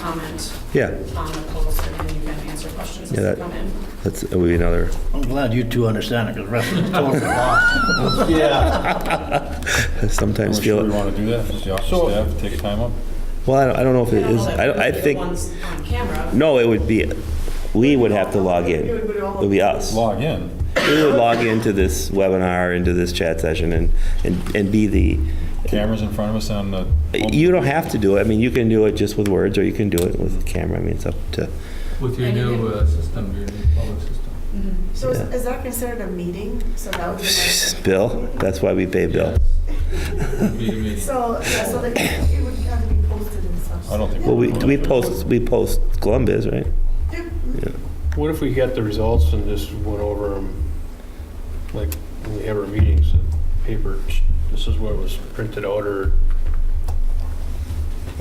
comment Yeah, on the polls, and then you can answer questions Yeah, as that- they come in. that's, that would be another, I'm glad you two understand it, because the rest of us totally lost. Yeah. I sometimes Sure we feel, want to do that, since the office staff take time up. well, I don't, I don't know if I it don't know is, that I, we don't- I would be the think, ones on camera. no, it would be, we would have to log in. It would be us. Log in. We would log into this webinar, into this chat session and, and, and be the, Cameras in front of us on the. you don't have to do it. I mean, you can do it just with words or you can do it with camera. I mean, it's up to, With your new uh, system, your new public system. Mm-hmm. So is, is that considered a meeting? So that would be like, Bill, that's why we pay Bill. Be a meeting. so, yeah, so that it would have to be posted and such. I don't think- Well, we, we post, we post Columbus, right? What if we got the results and just went over them, like, when we have our meetings, and paper, this is what was printed out, or,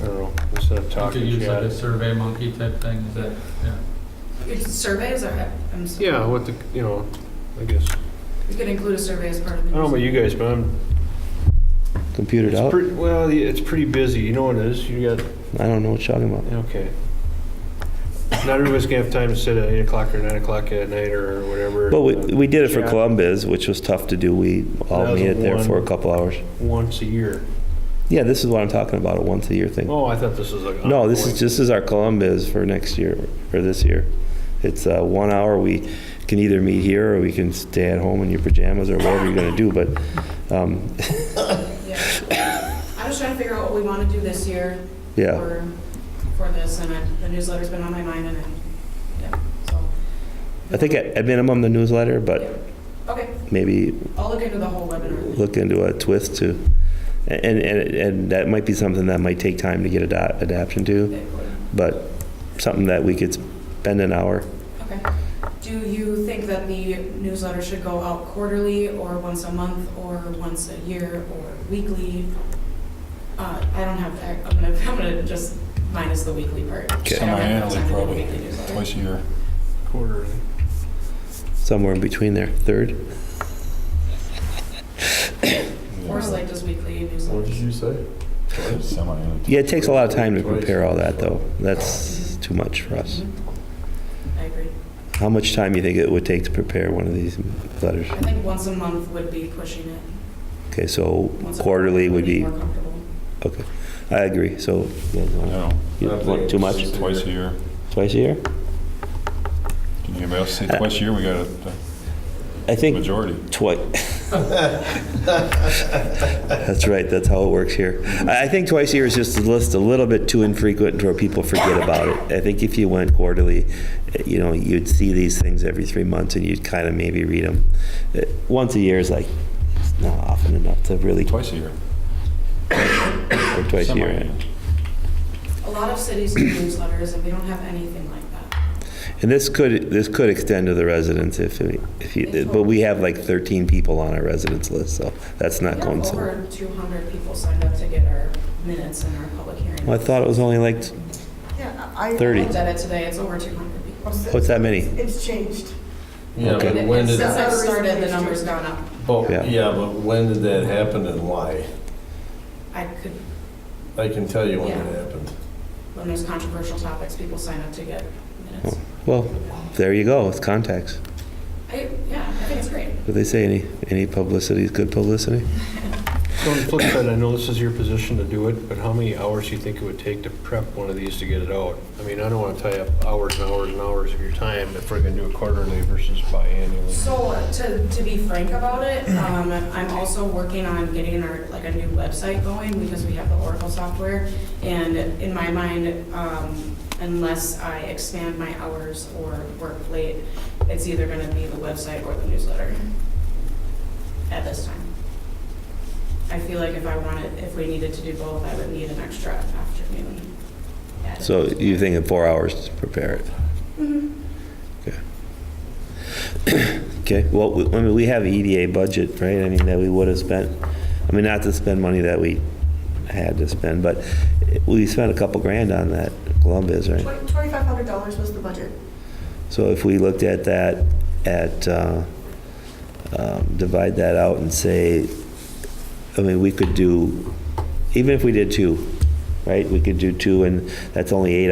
I don't know, instead of You could talking use like a chat? survey monkey type thing, is that, yeah. It's Surveys are, I'm sorry. Yeah, what the, you know, I guess, We could include a survey as part of I the. don't know about you guys, but I'm, Computered it's out. pretty, well, yeah, it's pretty busy, you know what it is, you got, I don't know what you're talking about. okay. Not everybody's gonna have time to sit at eight o'clock or nine o'clock at night, or whatever. uh, Well, we, we did it for Yeah. Columbus, which was tough to do. We all That was made it there one. for a couple hours. Once a year. Yeah, this is what I'm talking about, a once a year thing. Oh, I thought this was like. No, this is, ongoing. this is our Columbus for next year, or this year. It's uh, one hour. We can either meet here or we can stay at home in your pajamas or whatever you're gonna do, but, um, Yeah. I'm just trying to figure out what we want to do this year. yeah. For, for this, and I- the newsletter's been on my mind, and, I- yeah, so. I think at at minimum the newsletter, but Okay, maybe I'll look into the whole webinar. look into a twist to, and, and, and that might be something that might take time to get ada- adaption to, but something that we could spend an hour. Okay. Do you think that the newsletter should go out quarterly, or once a month, or once a year, or weekly? Uh, I don't have, that. I'm gonna, I'm gonna just minus the weekly part. Okay. I don't have time Semi-annually, to do a probably, weekly newsletter. twice a year. Quarterly. somewhere in between there, third. Or like just weekly newsletter. did you say? Semi-annually. Yeah, it takes a lot of time to prepare all that, though. That's too much for us. Mhm. I agree. How much time you think it would take to prepare one of these letters? I think once a month would be pushing it. Okay, so Once a quarterly month would be, More comfortable. okay, I agree, so, you guys wanna- No, you want too much, twice a year. twice a year? Can anybody else say twice a year? We got I a think majority. twice. That's right, that's how it works here. I I think twice a year is just a list a little bit too infrequent to where people forget about it. I think if you went quarterly, eh, you know, you'd see these things every three months and you'd kind of maybe read them. Once a year is like, it's not often enough to really, Twice a year. or twice a year. Semi-annually. A lot of cities do newsletters, and we don't have anything like that. And this could, this could extend to the residents if, we- if you, but we have like 13 people on our residents list, so that's not going We so. have over 200 people signed up to get our minutes and our public hearing. I thought it was only like, Yeah, I. I- I 30. looked at it today, it's over 200 people. what's that many? It's changed. Yeah, Okay. but when did, Since I That's not a started, the reason to number's change. gone up. but, Yeah. yeah, but when did that happen and why? I could, I can tell you when Yeah. it happened. when there's controversial topics, people sign up to get minutes. Hmm. Well, there you go, it's contacts. I, yeah, I think it's great. What they say, any, any publicity is good publicity? So on the flip side, I know this is your position to do it, but how many hours do you think it would take to prep one of these to get it out? I mean, I don't want to tie up hours and hours and hours of your time if we're going to do it quarterly versus biannually. So, uh, to, to be frank about it, um, I'm also working on getting our, like, a new website going because we have the Oracle software. And in my mind, um, unless I expand my hours or work late, it's either gonna be the website or the newsletter at this time. I feel like if I wanted, if we needed to do both, I would need an extra afternoon. added. So you think in four hours to prepare it? Okay. Okay, well, we- I mean, we have EDA budget, right? I mean, that we would have spent, I mean, not to spend money that we had to spend, but we spent a couple grand on that Columbus, right? Twenty-five hundred dollars was the budget. So if we looked at that, at, uh, um, divide that out and say, I mean, we could do, even if we did two, right? We could do two, and that's only eight